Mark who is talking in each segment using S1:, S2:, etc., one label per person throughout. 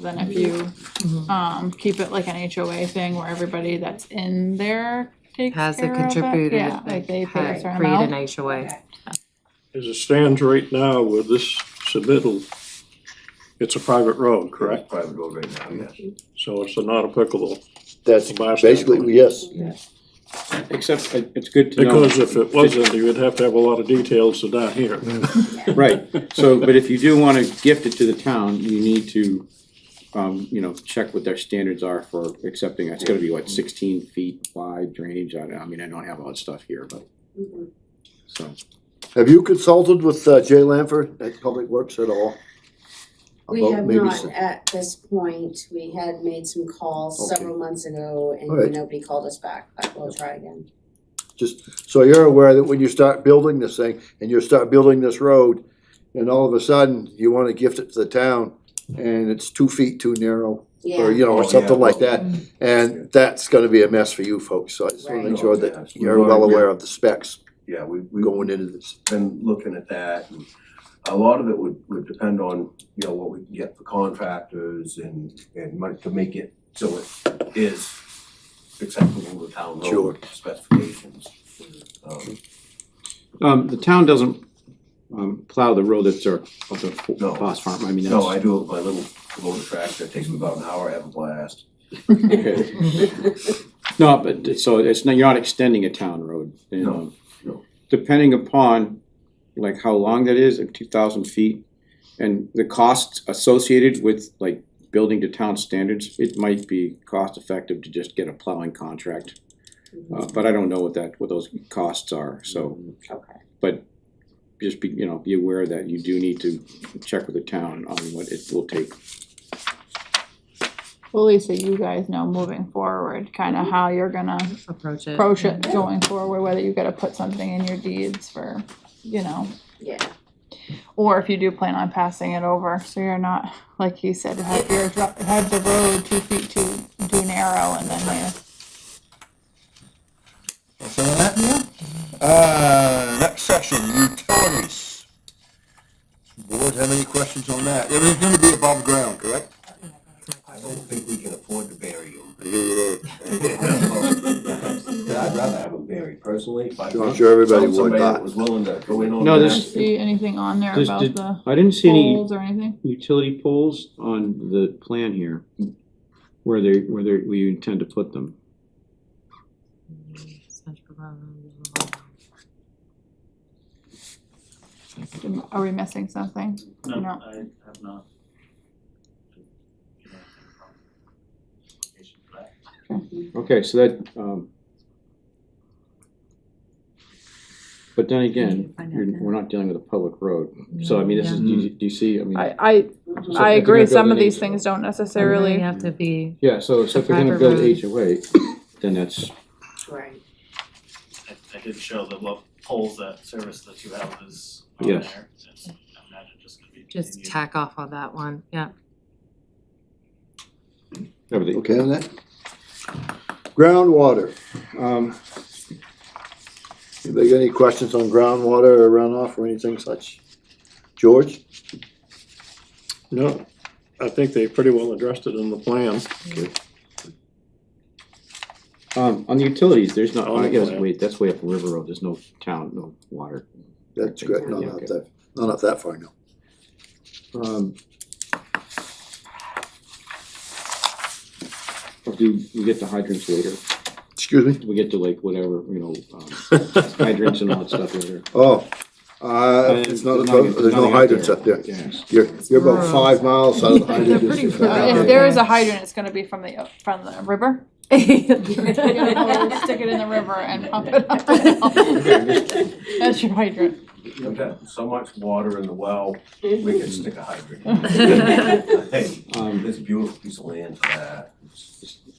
S1: than if you, um, keep it like an HOA thing where everybody that's in there takes care
S2: Has
S1: of
S2: a
S1: it.
S2: contributor
S1: Yeah, like
S2: that
S1: they pay a
S2: had
S1: certain
S2: created
S1: amount.
S2: an HOA.
S3: As it stands right now with this submittal, it's a private road, correct?
S4: Private road right now, yes.
S3: So it's not applicable.
S5: That's
S3: From our
S5: basically,
S3: standpoint.
S5: yes,
S6: Except it- it's good to know.
S3: Because if it wasn't, you would have to have a lot of details to down here.
S6: Right, so, but if you do wanna gift it to the town, you need to, um, you know, check what their standards are for accepting, it's gotta be what, sixteen feet wide drainage, I, don't- I mean, I don't have all that stuff here, but.
S7: Mm-hmm.
S6: So,
S5: have you consulted with uh, Jay Lanford at Public Works at all?
S7: We
S5: About
S7: have
S5: maybe
S7: not
S5: some-
S7: at this point, we had made some calls
S5: Okay.
S7: several months ago
S5: Alright.
S7: and nobody called us back, but we'll try again.
S5: Just, so you're aware that when you start building this thing, and you start building this road, and all of a sudden, you wanna gift it to the town, and it's two feet too narrow, or,
S7: Yeah,
S5: you know, or
S4: Yeah.
S5: something like
S4: Yeah.
S5: that, and that's gonna be a mess for you folks, so I just wanna make sure that you're well aware of the specs
S4: Yeah, we, we
S5: going into this.
S4: been looking at that and a lot of it would, would depend on, you know, what we can get for contractors and, and money to make it so it is acceptable to town
S5: Sure.
S4: road specifications. Um,
S6: um, the town doesn't, um, plow the road that's our, of the fo-
S4: No.
S6: Foss Farm, I mean,
S4: No, I
S6: that's.
S4: do it with my little Kubota tractor, it takes me about an hour, I have a blast.
S6: okay. No, but, it- so it's, not you're not extending a town road, you
S4: No,
S6: know.
S4: no.
S6: Depending upon, like, how long that is, like, two thousand feet, and the costs associated with like building to town standards, it might be cost effective to just get a plowing contract. Uh, but I don't know what that, what those costs are, so
S7: okay,
S6: just be, you know, be aware that you do need to check with the town on what it will take.
S1: Well, Lisa, you guys know moving forward, kinda how you're gonna
S2: Approach it.
S1: approach it going forward, whether you gotta put something in your deeds for, you know,
S7: yeah.
S1: or if you do plan on passing it over, so you're not, like you said, have your, dr- have the road two feet too, too narrow and then
S8: Some of that? Uh, next section, utilities. Board have any questions on that? Everything's gonna be above ground, correct?
S4: I don't think we can afford to bury them. I'd rather have them buried personally, but.
S5: I'm sure everybody
S4: Found
S5: would,
S4: somebody that
S5: but-
S4: Was willing to go in on that.
S6: No,
S1: you
S6: there's-
S1: see anything on there
S6: Does-
S1: about
S6: did-
S1: the
S6: I didn't see any.
S1: poles or anything?
S6: utility poles on the plan here, where they, where they, where you intend to put them.
S1: Are we missing something? No.
S9: No, I have not.
S6: Okay, so that, um, but then again,
S2: Find out
S6: you're,
S2: then.
S6: we're not dealing with a public road, so I mean, this is, do you, do you see, I mean,
S1: I, I, I
S6: So if you're
S1: agree,
S6: gonna build
S1: some of
S6: an
S1: these
S6: HOA.
S1: things don't
S2: You
S1: necessarily,
S2: have to be,
S6: yeah, so, so if you're gonna
S2: Private
S6: build
S2: road.
S6: HOA, then that's,
S7: Right.
S9: I, I did show the lo- poles that service the two houses on there.
S6: Yes.
S9: It's- I imagine just gonna be.
S2: just
S9: continued.
S2: tack off on that one, yeah.
S6: everything.
S5: Okay on that? Groundwater,
S6: Um,
S5: anybody got any questions on groundwater or runoff or anything such? George?
S3: No, I think they pretty well addressed it in the plan.
S6: um, on the utilities, there's not,
S3: On the
S6: yes,
S3: plan.
S6: wait, that's way up River Road, there's no town, no water.
S5: That's great, no,
S6: Yeah,
S5: not
S6: okay.
S5: that, no, not that far, no.
S6: Um. Do we get to hydrants later?
S5: Excuse me?
S6: Do we get to like whatever, you know, um, hydrants and all that stuff later?
S5: Oh, uh,
S6: Uh,
S5: it's not, a
S6: there's
S5: to-
S6: nothing-
S5: there's no
S6: nothing out
S5: hydrants
S6: there.
S5: up there.
S6: Yes.
S5: You're, you're about
S2: rural.
S5: five miles out of the hydrant.
S2: They're pretty
S5: district.
S2: rural.
S1: if there is a hydrant, it's gonna be from the, from the river. You're gonna go
S2: Well,
S1: Stick it in the river and pump it up. That's your hydrant.
S4: We've got so much water in the well, we could stick a hydrant. Hey,
S6: Um,
S4: this beautiful piece of land for that.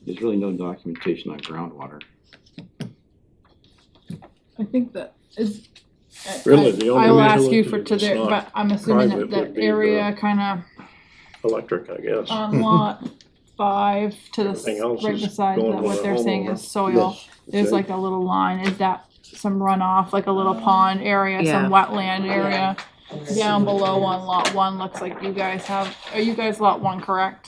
S6: there's really no documentation on groundwater.
S1: I think that is. I-
S3: Really, the only
S1: I will ask you
S3: utility
S1: for to
S3: that's
S1: there,
S3: not
S1: but I'm assuming that
S3: private would
S1: that
S3: be the-
S1: area kinda
S3: Electric, I guess.
S1: on lot five to the,
S3: Everything else
S1: s- right
S3: is
S1: beside
S3: going
S1: that,
S3: with
S1: what
S3: the
S1: they're saying
S3: homeowner.
S1: is soil.
S5: Yes,
S1: There's
S5: okay.
S1: like a little line, is that some runoff, like a little pond area, some wetland area? Down below on lot one, looks like you guys have, are you guys lot one correct?